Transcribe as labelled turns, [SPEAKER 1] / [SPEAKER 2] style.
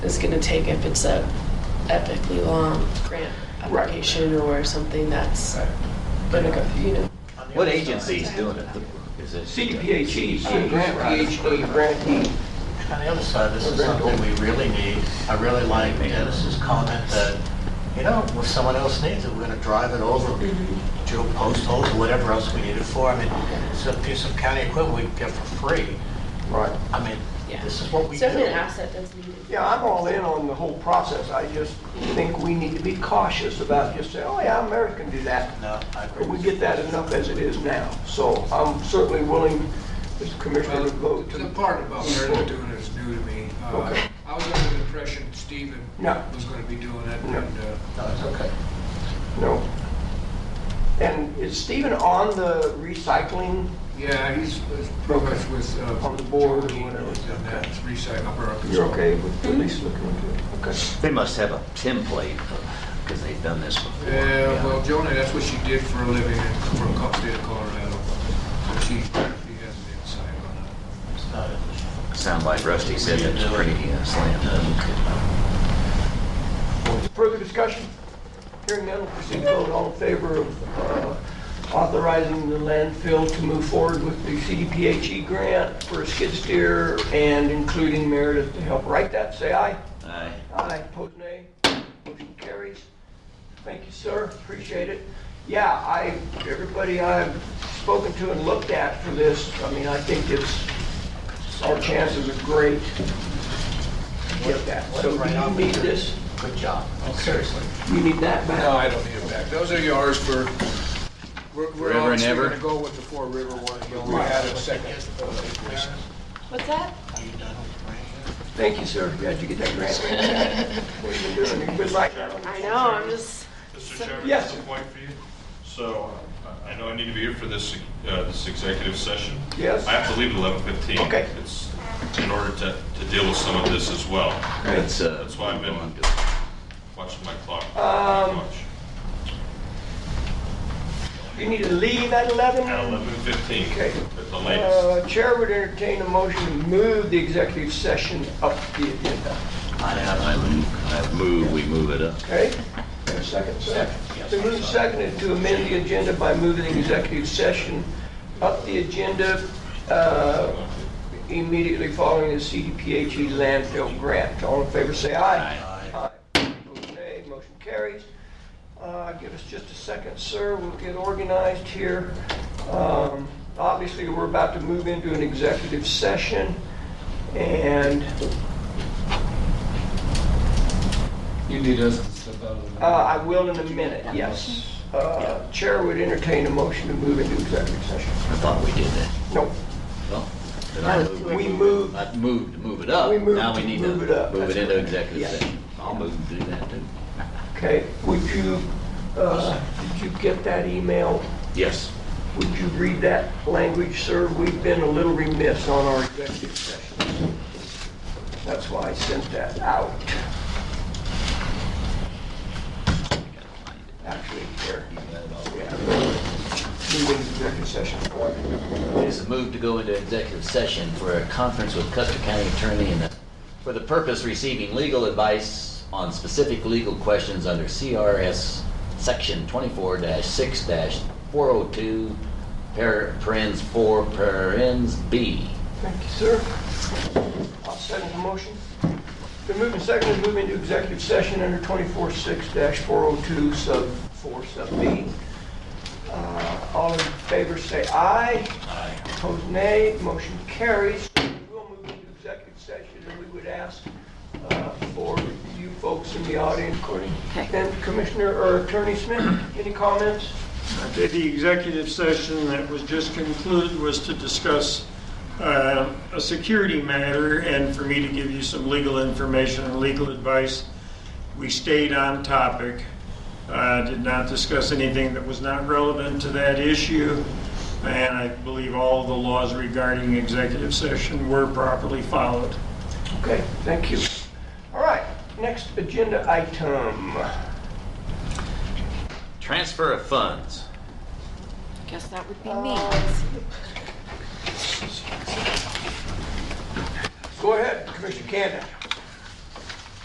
[SPEAKER 1] is going to take if it's a epically long grant
[SPEAKER 2] Right.
[SPEAKER 1] application or something that's going to go, you know.
[SPEAKER 3] What agency is doing it? Is it?
[SPEAKER 2] CDPHE.
[SPEAKER 4] Grant PhD, grantee.
[SPEAKER 5] On the other side, this is something we really need. I really like Dennis's comment that, you know, if someone else needs it, we're gonna drive it over, drill post holes or whatever else we need it for. I mean, it's a piece of county equipment we get for free.
[SPEAKER 4] Right.
[SPEAKER 5] I mean,
[SPEAKER 1] Yeah.
[SPEAKER 5] this is what we
[SPEAKER 1] It's
[SPEAKER 5] do.
[SPEAKER 1] definitely an asset that's needed.
[SPEAKER 4] Yeah, I'm all in on the whole process. I just think we need to be cautious about just saying, oh yeah, America can do that.
[SPEAKER 5] No, I agree.
[SPEAKER 4] But we get that enough as it is now. So I'm certainly willing, as Commissioner, to
[SPEAKER 6] Well,
[SPEAKER 4] vote
[SPEAKER 6] The
[SPEAKER 4] to,
[SPEAKER 6] part about Meredith doing it is new to me. Uh,
[SPEAKER 4] Okay.
[SPEAKER 6] I was under the impression Stephen
[SPEAKER 4] No.
[SPEAKER 6] was going to be doing it,
[SPEAKER 4] No.
[SPEAKER 6] and uh,
[SPEAKER 5] No, it's okay.
[SPEAKER 4] no. And is Stephen on the recycling?
[SPEAKER 6] yeah, he's he's pretty much with. uh,
[SPEAKER 4] On the board or
[SPEAKER 6] John Dean,
[SPEAKER 4] whatever.
[SPEAKER 6] And that's recycle, upper Arkansas.
[SPEAKER 4] with at least looking into it? Okay.
[SPEAKER 3] They must have a template, because they've done this before.
[SPEAKER 6] Yeah, well, Joni, that's what she did for a living in, from Col- state of Colorado. So she, she has an insight on it.
[SPEAKER 5] It's not an issue.
[SPEAKER 3] Sound like Rusty said
[SPEAKER 5] You
[SPEAKER 3] that's
[SPEAKER 5] do it.
[SPEAKER 3] pretty uh, slam dunk.
[SPEAKER 4] Further discussion? Hearing none, we'll proceed to vote. All in favor of uh, authorizing the landfill to move forward with the CDPHE E grant for a skid steer and including Meredith to help write that, say aye.
[SPEAKER 3] Aye.
[SPEAKER 4] Aye, opposed nay. Motion carries. Thank you, sir, appreciate it. Yeah, I, everybody I've spoken to and looked at for this, I mean, I think it's, our chances are great to get that. So do you need this?
[SPEAKER 5] Good job.
[SPEAKER 4] Oh,
[SPEAKER 5] Seriously.
[SPEAKER 4] You need that back?
[SPEAKER 6] No, I don't need it back. Those are yours for, we're-
[SPEAKER 3] Forever
[SPEAKER 6] we're
[SPEAKER 3] and
[SPEAKER 6] obviously
[SPEAKER 3] ever.
[SPEAKER 6] going to go with the Four River one. You only had a second.
[SPEAKER 1] What's that?
[SPEAKER 5] Are you done with the grant?
[SPEAKER 4] Thank you, sir. Glad you get that grant. What you been doing? You've been like that.
[SPEAKER 1] I know, I'm just,
[SPEAKER 7] Mr. Chairman,
[SPEAKER 4] Yes,
[SPEAKER 7] just a
[SPEAKER 4] sir.
[SPEAKER 7] point for you. So uh, I- I know I need to be here for this, uh, this executive session.
[SPEAKER 4] Yes.
[SPEAKER 7] I have to leave at 11:15.
[SPEAKER 4] Okay.
[SPEAKER 7] It's in order to, to deal with some of this as well.
[SPEAKER 3] That's, uh.
[SPEAKER 7] That's why I've been-
[SPEAKER 3] going to-
[SPEAKER 7] Watching my clock.
[SPEAKER 4] Um,
[SPEAKER 7] Watch.
[SPEAKER 4] You need to leave at 11?
[SPEAKER 7] At 11:15.
[SPEAKER 4] Okay.
[SPEAKER 7] At the latest.
[SPEAKER 4] Uh, Chair would entertain a motion to move the executive session up the agenda.
[SPEAKER 3] I have, I move, we move it up.
[SPEAKER 4] Okay? Got a Second, sir. So move seconded to amend the agenda by moving the executive session up the agenda uh, immediately following the CDPHE E landfill grant. All in favor, say aye. Aye. Opposed, nay. Motion carries. Uh, Give us just a second, sir. We'll get organized here. Um, Obviously, we're about to move into an executive session, and
[SPEAKER 8] You need us to step out of the.
[SPEAKER 4] uh, I will in a minute, yes. Uh, Chair would entertain a motion to move into executive session.
[SPEAKER 3] I thought we did that.
[SPEAKER 4] No,
[SPEAKER 3] Well, then I move.
[SPEAKER 4] we moved,
[SPEAKER 3] I moved to move it up.
[SPEAKER 4] We moved
[SPEAKER 3] Now we
[SPEAKER 4] to
[SPEAKER 3] need to
[SPEAKER 4] move it up.
[SPEAKER 3] Move it
[SPEAKER 4] That's
[SPEAKER 3] into
[SPEAKER 4] right.
[SPEAKER 3] executive
[SPEAKER 4] Yeah.
[SPEAKER 3] session. I'll move and do that too.
[SPEAKER 4] okay. Would you, uh, did you get that email?
[SPEAKER 3] Yes.
[SPEAKER 4] Would you read that language, sir? We've been a little remiss on our executive sessions. That's why I sent that out. Actually, here, yeah. Moving to executive session.
[SPEAKER 3] It is a move to go into executive session for a conference with Custer County Attorney and for the purpose receiving legal advice on specific legal questions under CRS Section 24-6-402, par- parens 4, parens B.
[SPEAKER 4] Thank you, sir. I'll second the motion. The move and second to move into executive session under 24-6-402 sub 4 sub B. Uh, All in favor, say aye. Aye. Opposed, nay. Motion carries. We'll move into executive session, and we would ask uh, for you folks in the audience, Courtney, and Commissioner or Attorney Smith, any comments?
[SPEAKER 9] Okay, The executive session that was just concluded was to discuss uh, a security matter and for me to give you some legal information and legal advice. We stayed on topic, uh, did not discuss anything that was not relevant to that issue, and I believe all the laws regarding executive session were properly followed.
[SPEAKER 4] Okay, thank you. All right, next agenda item.
[SPEAKER 3] Transfer of funds.
[SPEAKER 10] Guess that would be me.
[SPEAKER 4] Go ahead, Commissioner Canada.